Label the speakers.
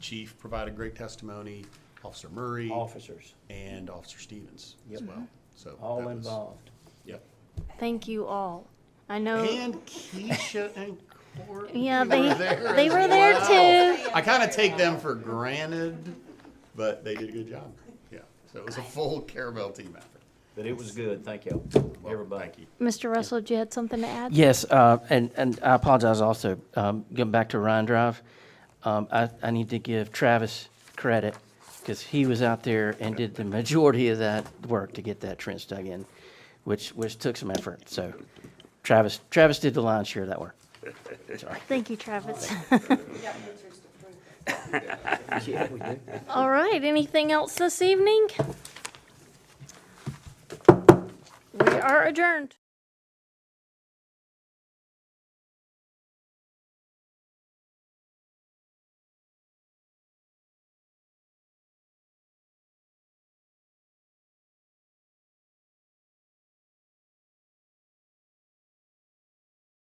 Speaker 1: chief provided great testimony, Officer Murray,
Speaker 2: officers,
Speaker 1: and Officer Stevens as
Speaker 2: Yep.
Speaker 1: well. So
Speaker 2: all
Speaker 1: that was-
Speaker 2: involved.
Speaker 1: Yep.
Speaker 3: Thank you all. I know.
Speaker 1: And Keisha and Courtney
Speaker 3: Oh. yeah,
Speaker 1: were
Speaker 3: they
Speaker 1: there
Speaker 3: they
Speaker 1: as
Speaker 3: were there
Speaker 1: well.
Speaker 3: too.
Speaker 1: I kind of take them for granted, but they did a good job. Yeah, so it was a full Caravelle team effort.
Speaker 2: But it was good, thank y'all,
Speaker 1: Well,
Speaker 2: everybody.
Speaker 1: Thank you.
Speaker 3: Mr. Russell, did you had something to add?
Speaker 4: Yes, uh, and, and I apologize also, um, going back to Ryan Drive, um, I, I need to give Travis credit, because he was out there and did the majority of that work to get that trench dug in, which, which took some effort, so Travis, Travis did the lion's share of that work.
Speaker 3: Thank you, Travis.
Speaker 2: Yeah, we did.
Speaker 3: all right. Anything else this evening? We are adjourned.